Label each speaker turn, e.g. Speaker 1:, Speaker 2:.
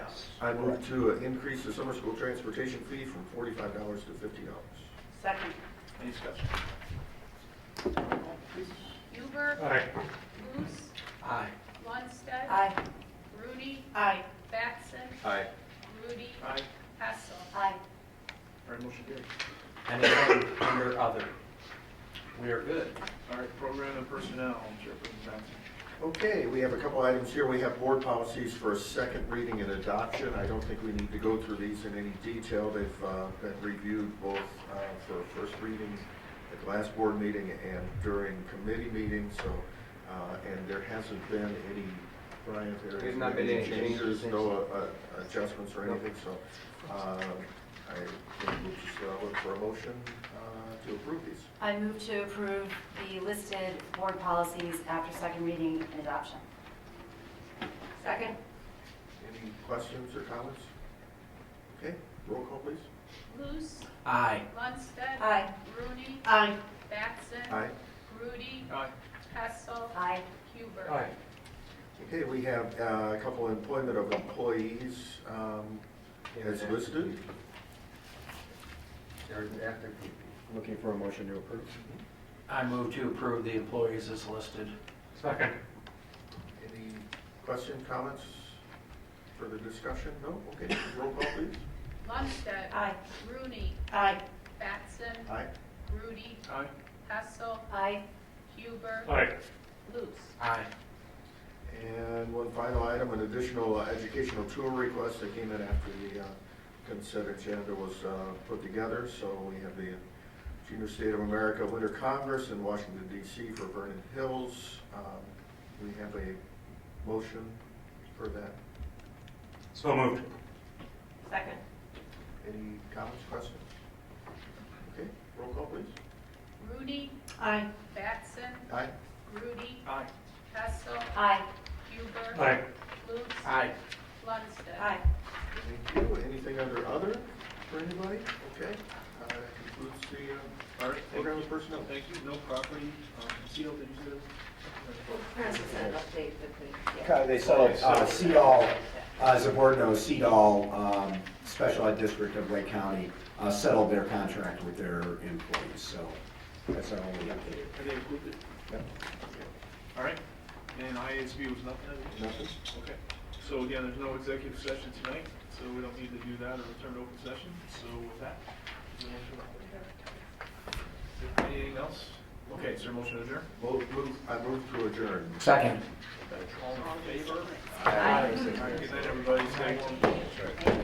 Speaker 1: I move to uh, increase the summer school transportation fee from forty-five dollars to fifty dollars.
Speaker 2: Second.
Speaker 3: Any discussion?
Speaker 4: Huber.
Speaker 3: Aye.
Speaker 4: Luce.
Speaker 3: Aye.
Speaker 4: Lundstedt.
Speaker 2: Aye.
Speaker 4: Rudy.
Speaker 2: Aye.
Speaker 4: Batson.
Speaker 1: Aye.
Speaker 4: Rudy.
Speaker 3: Aye.
Speaker 4: Hessel.
Speaker 2: Aye.
Speaker 3: All right, motion carried.
Speaker 5: And again, under other, we are good.
Speaker 3: All right, program and personnel, Chairperson Johnson.
Speaker 1: Okay, we have a couple items here. We have board policies for a second reading and adoption. I don't think we need to go through these in any detail. They've uh, been reviewed both uh, for first reading at the last board meeting and during committee meetings, so, uh, and there hasn't been any, Brian, there
Speaker 5: There's
Speaker 1: hasn't
Speaker 5: not
Speaker 1: been any
Speaker 5: been any
Speaker 1: changes,
Speaker 5: changes.
Speaker 1: no uh, uh, adjustments or anything, so uh, I think we'll just uh, look for a motion uh, to approve these.
Speaker 2: I move to approve the listed board policies after second reading and adoption. Second.
Speaker 1: Any questions or comments? Okay, roll call, please.
Speaker 4: Luce.
Speaker 5: Aye.
Speaker 4: Lundstedt.
Speaker 2: Aye.
Speaker 4: Rooney.
Speaker 2: Aye.
Speaker 4: Batson.
Speaker 1: Aye.
Speaker 4: Rudy.
Speaker 3: Aye.
Speaker 4: Hessel.
Speaker 2: Aye.
Speaker 4: Huber.
Speaker 1: Okay, we have uh, a couple employment of employees um, as listed.
Speaker 6: Looking for a motion to approve.
Speaker 5: I move to approve the employees as listed.
Speaker 3: Second.
Speaker 1: Any question, comments, further discussion? No? Okay, roll call, please.
Speaker 4: Lundstedt.
Speaker 2: Aye.
Speaker 4: Rooney.
Speaker 2: Aye.
Speaker 4: Batson.
Speaker 1: Aye.
Speaker 4: Rudy.
Speaker 3: Aye.
Speaker 4: Hessel.
Speaker 2: Aye.
Speaker 4: Huber.
Speaker 3: Aye.
Speaker 4: Luce.
Speaker 5: Aye.
Speaker 1: And one final item, an additional uh, educational tour request that came in after the uh, consent agenda was uh, put together. So we have the Junior State of America Winter Congress in Washington DC for Vernon Hills. Um, We have a motion for that.
Speaker 3: So moved.
Speaker 2: Second.
Speaker 1: Any comments, questions? Okay, roll call, please.
Speaker 4: Rooney.
Speaker 2: Aye.
Speaker 4: Batson.
Speaker 1: Aye.
Speaker 4: Rudy.
Speaker 3: Aye.
Speaker 4: Hessel.
Speaker 2: Aye.
Speaker 4: Huber.
Speaker 3: Aye.
Speaker 4: Luce.
Speaker 5: Aye.
Speaker 4: Lundstedt.
Speaker 2: Aye.
Speaker 1: Thank you. Anything under other for anybody? Okay, uh, that concludes the uh,
Speaker 3: All right, thank
Speaker 1: program
Speaker 3: you.
Speaker 1: with personnel.
Speaker 3: Thank you. No property. Um, Seal, did you say?
Speaker 6: They sell it, uh, CEDOL, as the board knows, CEDOL, um, Special Ed District of Lake County, uh, settled their contract with their employees, so that's our only update.
Speaker 3: Are they included?
Speaker 1: Yep.
Speaker 3: All right. And IASB was nothing? I think?
Speaker 1: Nothing?
Speaker 3: Okay. So again, there's no executive session tonight, so we don't need to do that or return to open session. So with that, is there a motion? anything else? Okay, is there a motion to adjourn?
Speaker 1: Move, move, I move to adjourn.
Speaker 5: Second.
Speaker 3: All in favor?
Speaker 2: Aye.
Speaker 3: All right, Good night, everybody. Stay warm.